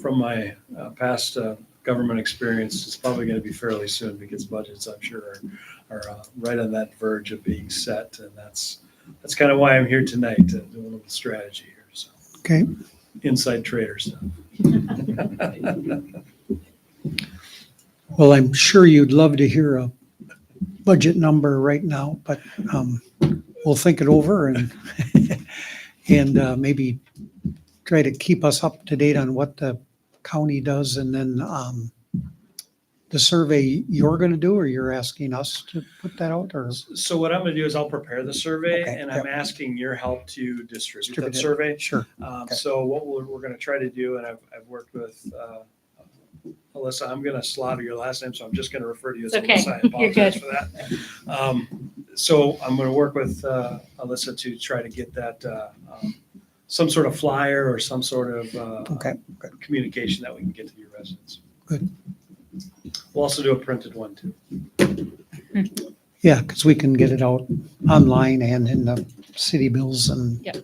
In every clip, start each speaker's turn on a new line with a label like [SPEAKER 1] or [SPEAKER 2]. [SPEAKER 1] from my uh, past uh, government experience, it's probably going to be fairly soon because budgets, I'm sure, are, are uh, right on that verge of being set. And that's, that's kind of why I'm here tonight to do a little strategy here. So
[SPEAKER 2] Okay,
[SPEAKER 1] inside trader stuff.
[SPEAKER 2] well, I'm sure you'd love to hear a budget number right now, but um, we'll think it over and, and uh, maybe try to keep us up to date on what the county does and then um, the survey you're going to do, or you're asking us to put that out, or?
[SPEAKER 1] So what I'm going to do is I'll prepare the survey
[SPEAKER 2] Okay,
[SPEAKER 1] and I'm asking your help to distribute
[SPEAKER 2] Distribute
[SPEAKER 1] that
[SPEAKER 2] it.
[SPEAKER 1] survey.
[SPEAKER 2] Sure.
[SPEAKER 1] Um,
[SPEAKER 2] Okay.
[SPEAKER 1] So what we're, we're gonna try to do, and I've, I've worked with, uh, Alyssa, I'm gonna slaughter your last name, so I'm just gonna refer to you as
[SPEAKER 3] It's okay.
[SPEAKER 1] Alyssa. I
[SPEAKER 3] You're
[SPEAKER 1] apologize
[SPEAKER 3] good.
[SPEAKER 1] for that. Um, So I'm gonna work with, uh, Alyssa to try to get that, uh, um, some sort of flyer or some sort of, uh,
[SPEAKER 2] Okay,
[SPEAKER 1] communication that we can get to your residents.
[SPEAKER 2] Good.
[SPEAKER 1] We'll also do a printed one too.
[SPEAKER 2] yeah, because we can get it out online and in the city bills and
[SPEAKER 3] Happy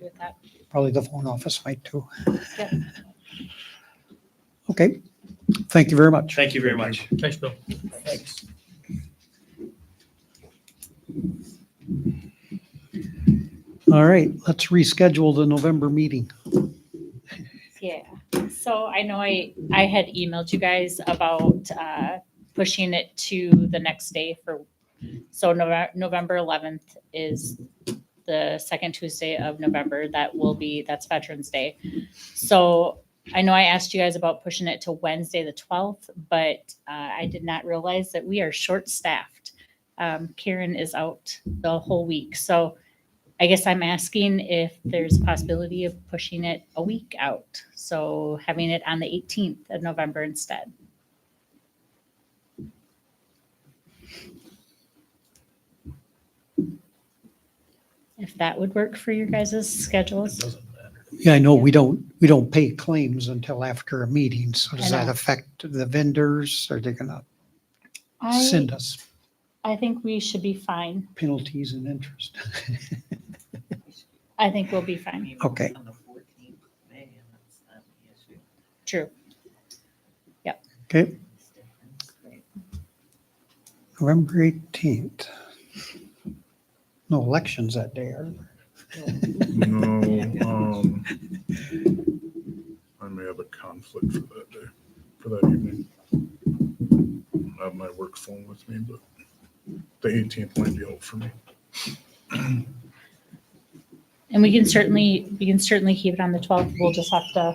[SPEAKER 3] with that.
[SPEAKER 2] probably the phone office might too.
[SPEAKER 3] Yep.
[SPEAKER 2] Okay, thank you very much.
[SPEAKER 1] Thank you very much.
[SPEAKER 4] Thanks, Bill.
[SPEAKER 2] All right, let's reschedule the November meeting.
[SPEAKER 3] Yeah. So I know I, I had emailed you guys about uh, pushing it to the next day for, so Nove- November 11th is the second Tuesday of November. That will be, that's Veterans Day. So I know I asked you guys about pushing it to Wednesday, the 12th, but uh, I did not realize that we are short-staffed. Um, Karen is out the whole week. So I guess I'm asking if there's possibility of pushing it a week out, so having it on the 18th of November instead. If that would work for your guys' schedules.
[SPEAKER 4] Doesn't matter.
[SPEAKER 2] Yeah, I know we don't, we don't pay claims until after a meeting, so does
[SPEAKER 3] I
[SPEAKER 2] that
[SPEAKER 3] know.
[SPEAKER 2] affect the vendors? Are they gonna send us
[SPEAKER 3] I think we should be fine.
[SPEAKER 2] penalties and interest?
[SPEAKER 3] I think we'll be fine.
[SPEAKER 2] Okay.
[SPEAKER 5] On the 14th of May, and that's not the issue.
[SPEAKER 3] True.
[SPEAKER 2] Okay,
[SPEAKER 5] It's different.
[SPEAKER 2] November eighteenth. No elections that day, are there?
[SPEAKER 6] No, um, I may have a conflict for that day, for that evening. I have my work phone with me, but the eighteenth might be out for me.
[SPEAKER 3] And we can certainly, we can certainly keep it on the 12th. We'll just have to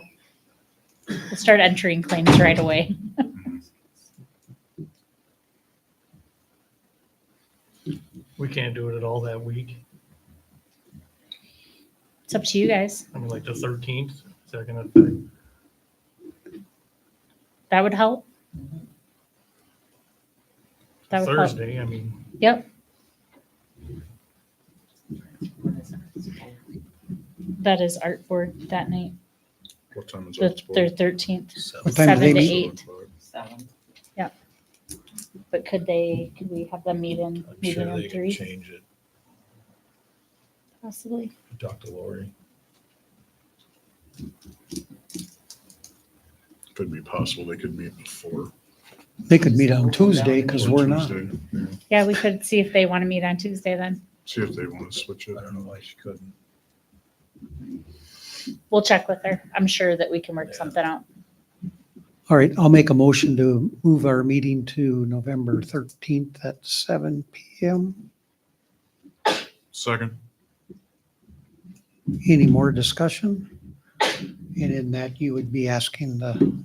[SPEAKER 3] we'll start entering claims right away.
[SPEAKER 4] We can't do it at all that week.
[SPEAKER 3] It's up to you guys.
[SPEAKER 4] I mean, like the thirteenth, is that gonna affect?
[SPEAKER 3] That would help. That would help.
[SPEAKER 4] Thursday, I mean,
[SPEAKER 3] Yep,
[SPEAKER 5] What is it?
[SPEAKER 3] that is art board that night,
[SPEAKER 6] What time is
[SPEAKER 3] the
[SPEAKER 6] that? uh,
[SPEAKER 3] thir- 13th,
[SPEAKER 2] What time do they
[SPEAKER 3] seven to
[SPEAKER 2] meet?
[SPEAKER 3] eight.
[SPEAKER 5] Seven.
[SPEAKER 3] But could they, could we have them meet in,
[SPEAKER 7] I'm
[SPEAKER 3] meet
[SPEAKER 7] sure
[SPEAKER 3] in
[SPEAKER 7] they
[SPEAKER 3] room
[SPEAKER 7] can
[SPEAKER 3] three
[SPEAKER 7] change it.
[SPEAKER 3] possibly?
[SPEAKER 7] Talk to Lori.
[SPEAKER 6] Could be possible they could meet before.
[SPEAKER 2] They could meet on Tuesday because
[SPEAKER 6] or
[SPEAKER 2] we're not.
[SPEAKER 6] Tuesday, yeah.
[SPEAKER 3] Yeah, we could see if they want to meet on Tuesday then.
[SPEAKER 6] See if they want to switch it.
[SPEAKER 7] I don't know why she couldn't.
[SPEAKER 3] We'll check with her. I'm sure that we can work
[SPEAKER 7] Yeah.
[SPEAKER 3] something out.
[SPEAKER 2] All right, I'll make a motion to move our meeting to November thirteenth at seven PM.
[SPEAKER 6] Second,
[SPEAKER 2] Any more discussion? And in that, you would be asking the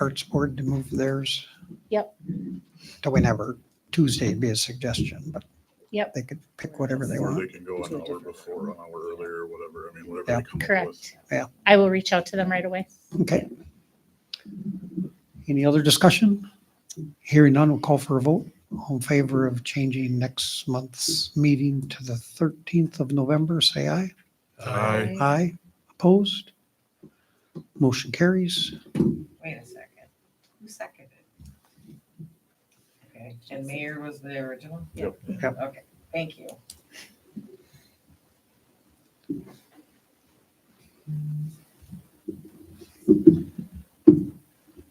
[SPEAKER 2] Arts Board to move theirs?
[SPEAKER 3] Yep.
[SPEAKER 2] To whenever, Tuesday would be a suggestion, but
[SPEAKER 3] Yep.
[SPEAKER 2] they could pick whatever they
[SPEAKER 6] or
[SPEAKER 2] want.
[SPEAKER 6] they can go an hour before, an hour earlier, or whatever, I mean, whatever
[SPEAKER 2] Yeah.
[SPEAKER 6] they come up with.
[SPEAKER 3] Correct.
[SPEAKER 2] Yeah.
[SPEAKER 3] I will reach out to them right away.
[SPEAKER 2] Okay. Any other discussion? Hearing none, we'll call for a vote. All in favor of changing next month's meeting to the thirteenth of November, say aye.
[SPEAKER 6] Aye.
[SPEAKER 2] Aye. Opposed? Motion carries.
[SPEAKER 5] Wait a second. Who seconded? Okay, and Mayor was the original?
[SPEAKER 6] Yep.
[SPEAKER 2] Yep.
[SPEAKER 5] Okay, thank you.